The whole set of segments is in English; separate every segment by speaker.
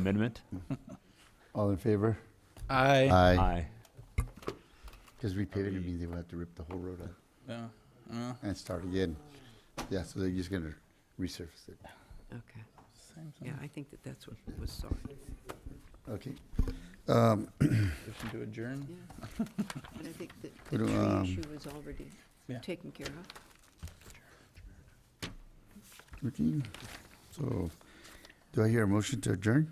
Speaker 1: amendment?
Speaker 2: All in favor?
Speaker 3: I.
Speaker 2: Aye.
Speaker 1: Aye.
Speaker 2: Because repaving it means they will have to rip the whole road up
Speaker 3: Yeah. yeah,
Speaker 2: and start again. Yeah, so they're just gonna resurface it.
Speaker 4: Okay,
Speaker 3: same thing.
Speaker 4: yeah, I think that that's what was sought,
Speaker 2: Okay.
Speaker 3: Motion to adjourn.
Speaker 4: yeah. But I think that the
Speaker 2: What do, um,
Speaker 4: tree issue was already
Speaker 3: Yeah.
Speaker 4: taken care of.
Speaker 2: Routine. So, do I hear a motion to adjourn?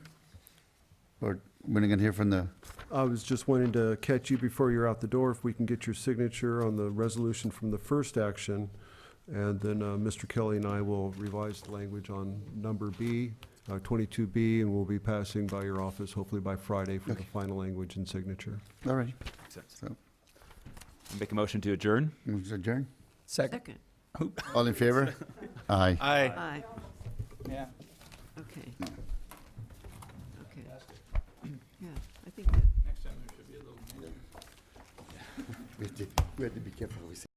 Speaker 2: Or when are gonna hear from the,
Speaker 5: I was just wanting to catch you before you're out the door, if we can get your signature on the resolution from the first action. And then uh, Mr. Kelly and I will revise the language on number B, uh, 22B, and we'll be passing by your office hopefully by Friday for the
Speaker 2: Okay.
Speaker 5: final language and signature.
Speaker 2: all right,
Speaker 1: Make a motion to adjourn?
Speaker 2: motion to adjourn?
Speaker 3: Second.
Speaker 4: Second,
Speaker 2: All in favor? Aye.
Speaker 3: Aye.
Speaker 4: aye,
Speaker 3: Yeah.
Speaker 4: okay. Okay. Yeah, I think that
Speaker 3: Next time there should be a little.
Speaker 2: We have to, we have to be careful what we say.